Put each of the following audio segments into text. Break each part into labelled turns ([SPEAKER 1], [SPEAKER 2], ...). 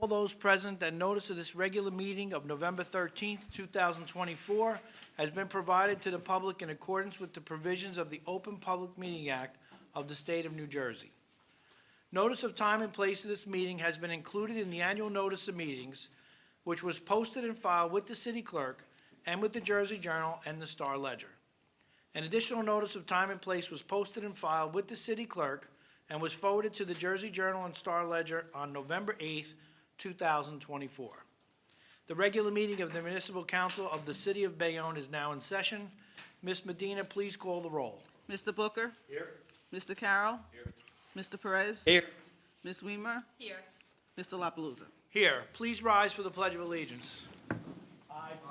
[SPEAKER 1] all those present that notice of this regular meeting of November 13th, 2024, has been provided to the public in accordance with the provisions of the Open Public Meeting Act of the State of New Jersey. Notice of time and place of this meeting has been included in the annual notice of meetings, which was posted and filed with the city clerk and with the Jersey Journal and the Star Ledger. An additional notice of time and place was posted and filed with the city clerk and was forwarded to the Jersey Journal and Star Ledger on November 8th, 2024. The regular meeting of the Municipal Council of the City of Bayonne is now in session. Ms. Medina, please call the roll.
[SPEAKER 2] Mr. Booker? Here. Mr. Carroll? Here. Mr. Perez?
[SPEAKER 1] Here.
[SPEAKER 2] Ms. Weimer?
[SPEAKER 3] Here.
[SPEAKER 2] Mr. La Palusa?
[SPEAKER 1] Here, please rise for the Pledge of Allegiance.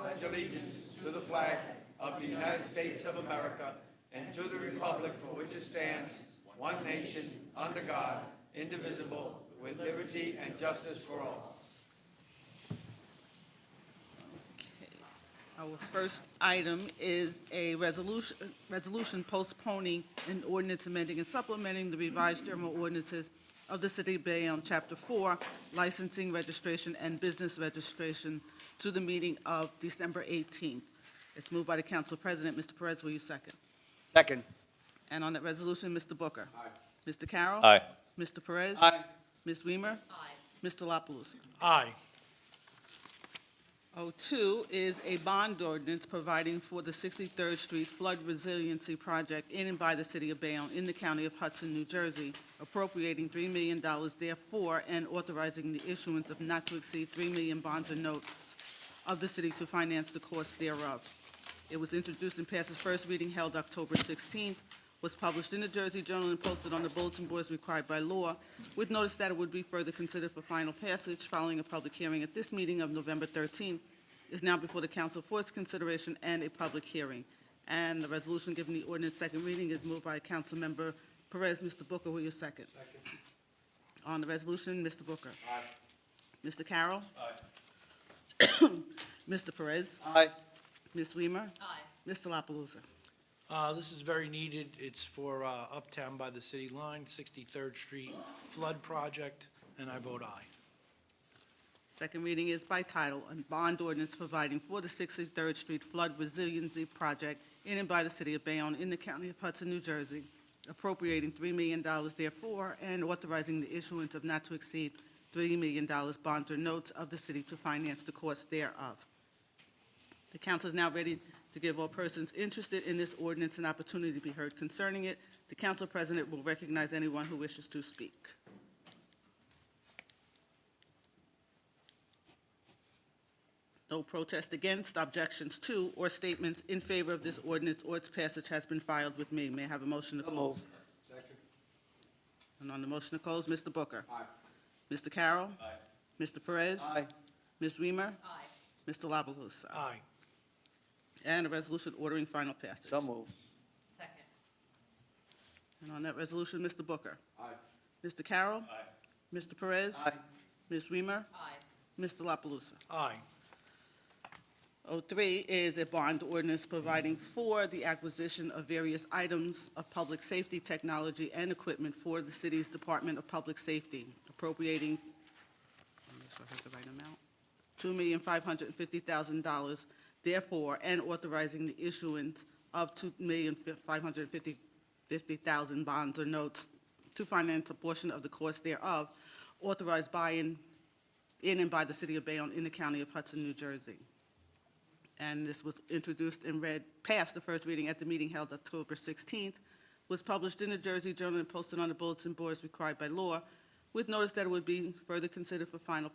[SPEAKER 4] pledge allegiance to the flag of the United States of America and to the republic for which it stands, one nation, under God, indivisible, with liberty and justice for all.
[SPEAKER 2] Our first item is a resolution, resolution postponing an ordinance amending and supplementing the revised general ordinances of the City of Bayonne, Chapter 4, licensing, registration, and business registration to the meeting of December 18th. It's moved by the Council President. Mr. Perez, will you second?
[SPEAKER 5] Second.
[SPEAKER 2] And on that resolution, Mr. Booker? Aye. Mr. Carroll?
[SPEAKER 5] Aye.
[SPEAKER 2] Mr. Perez?
[SPEAKER 5] Aye.
[SPEAKER 2] Ms. Weimer?
[SPEAKER 3] Aye.
[SPEAKER 2] Mr. La Palusa?
[SPEAKER 1] Aye.
[SPEAKER 2] O2 is a bond ordinance providing for the 63rd Street Flood Resiliency Project in and by the City of Bayonne in the County of Hudson, New Jersey, appropriating $3 million therefore and authorizing the issuance of not to exceed 3 million bonds or notes of the city to finance the cost thereof. It was introduced and passed its first reading held October 16th, was published in the Jersey Journal and posted on the bulletin boards required by law, with notice that it would be further considered for final passage following a public hearing at this meeting of November 13th, is now before the council for its consideration and a public hearing. And the resolution giving the ordinance second reading is moved by Councilmember Perez. Mr. Booker, will you second? Second. On the resolution, Mr. Booker. Aye. Mr. Carroll. Aye. Mr. Perez.
[SPEAKER 5] Aye.
[SPEAKER 2] Ms. Weimer.
[SPEAKER 3] Aye.
[SPEAKER 2] Mr. La Palusa.
[SPEAKER 1] Uh, This is very needed. It's for uh, Uptown by the City Line, 63rd Street Flood Project, and I vote aye.
[SPEAKER 2] Second reading is by title, and bond ordinance providing for the 63rd Street Flood Resiliency Project in and by the City of Bayonne in the County of Hudson, New Jersey, appropriating $3 million therefore and authorizing the issuance of not to exceed $3 million bonds or notes of the city to finance the cost thereof. The council is now ready to give all persons interested in this ordinance an opportunity to be heard concerning it. The council president will recognize anyone who wishes to speak. No protest against, objections to, or statements in favor of this ordinance or its passage has been filed with me. May I have a motion to close? And on the motion to close, Mr. Booker. Aye. Mr. Carroll. Aye. Mr. Perez.
[SPEAKER 5] Aye.
[SPEAKER 2] Ms. Weimer.
[SPEAKER 3] Aye.
[SPEAKER 2] Mr. La Palusa.
[SPEAKER 1] Aye.
[SPEAKER 2] And a resolution ordering final passage.
[SPEAKER 5] So moved.
[SPEAKER 3] Second.
[SPEAKER 2] And on that resolution, Mr. Booker. Aye. Mr. Carroll. Aye. Mr. Perez.
[SPEAKER 5] Aye.
[SPEAKER 2] Ms. Weimer.
[SPEAKER 3] Aye.
[SPEAKER 2] Mr. La Palusa.
[SPEAKER 1] Aye.
[SPEAKER 2] O3 is a bond ordinance providing for the acquisition of various items of public safety technology and equipment for the city's Department of Public Safety, appropriating, let me make sure I have the right amount, $2,550,000, therefore, and authorizing the issuance of $2,550,000 bonds or notes to finance a portion of the cost thereof, authorized by and, in and by the city of Bayonne in the county of Hudson, New Jersey and this was introduced and read past the first reading at the meeting held October 16th, was published in the Jersey Journal and posted on the bulletin boards required by law, with notice that it would be further considered for final